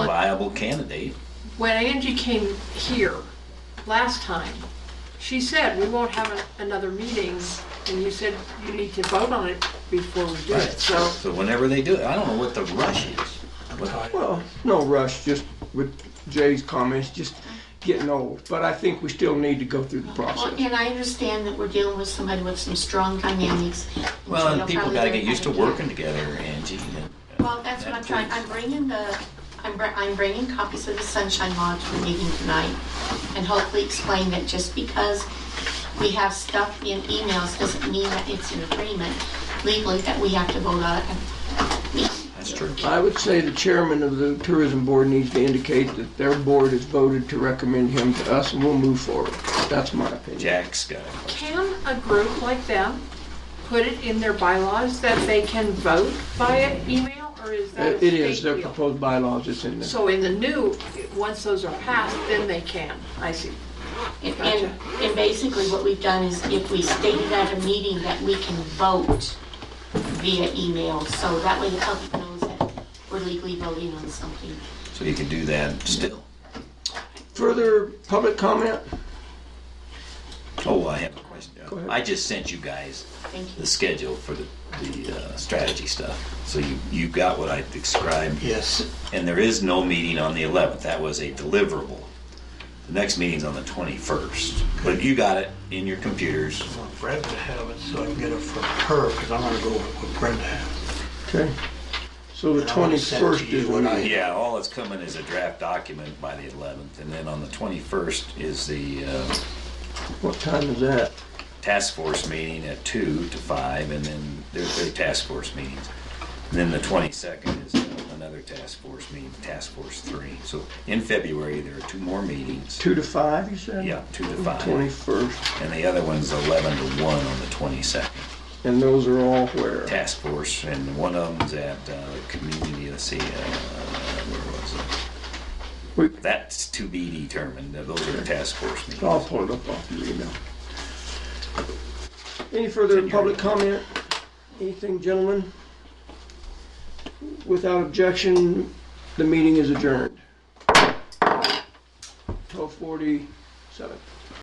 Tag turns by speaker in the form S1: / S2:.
S1: viable candidate.
S2: When Angie came here last time, she said, we won't have a- another meeting, and you said you need to vote on it before we do it, so.
S1: So whenever they do it, I don't know what the rush is.
S3: Well, no rush, just with Jay's comments, just getting old. But I think we still need to go through the
S4: Well,
S3: process.
S4: and I understand that we're dealing with somebody with some strong dynamics.
S1: Well,
S4: They'll
S1: and people
S4: probably
S1: gotta
S4: learn
S1: get
S4: how
S1: used to
S4: do
S1: working
S4: it.
S1: together, Angie. and-
S4: Well, that's what I'm trying, I'm bringing the, I'm, br- I'm bringing copies of the sunshine law to the meeting tonight and hopefully explain that just because we have stuff in emails doesn't mean that it's an agreement legally that we have to vote on it.
S1: That's true.
S3: I would say the chairman of the tourism board needs to indicate that their board has voted to recommend him to us and we'll move forward. That's my opinion.
S1: Jack's got it.
S2: Can a group like them put it in their bylaws that they can vote via email, or is that a
S3: It it is,
S2: state
S3: their
S2: deal?
S3: proposed bylaws is in there.
S2: So in the new, once those are passed, then they can, I see.
S4: And, and- and basically what we've done is if we stated at a meeting that we can vote via email, so that way the public knows that we're legally voting on something.
S1: So you can do that still.
S3: Further public comment?
S1: Oh, I have a question.
S3: ahead.
S1: I just sent you guys
S4: Thank
S1: the
S4: you.
S1: schedule for the, the uh, strategy stuff. So you, you got what I described.
S5: Yes,
S1: And there is no meeting on the 11th. That was a deliverable. The next meeting's on the 21st. But you got it in your computers.
S5: I want Brenda to have it so I can get it from her, because I'm gonna go with what Brenda has.
S3: Okay. So the
S5: And I wanna send to
S3: 21st is
S5: you
S3: when
S5: what I-
S3: I,
S1: Yeah, all that's coming is a draft document by the 11th. And then on the 21st is the uh,
S3: what time is that?
S1: task force meeting at 2 to 5. And then there's their task force meetings. And then the 22nd is uh, another task force meeting, Task Force 3. So in February, there are two more meetings.
S3: Two to five, you said?
S1: Yeah, 2 to 5.
S3: 21st.
S1: And the other one's 11 to 1 on the 22nd.
S3: And those are all where?
S1: task force, and one of them's at uh, community. Let's see, uh, where
S3: We-
S1: was it? That's to be determined. Now, Those are the task force
S3: I'll
S1: meetings.
S3: pull it up off your email. Any further public comment? Anything, gentlemen? Without objection, the meeting is adjourned. Twelve forty-seven.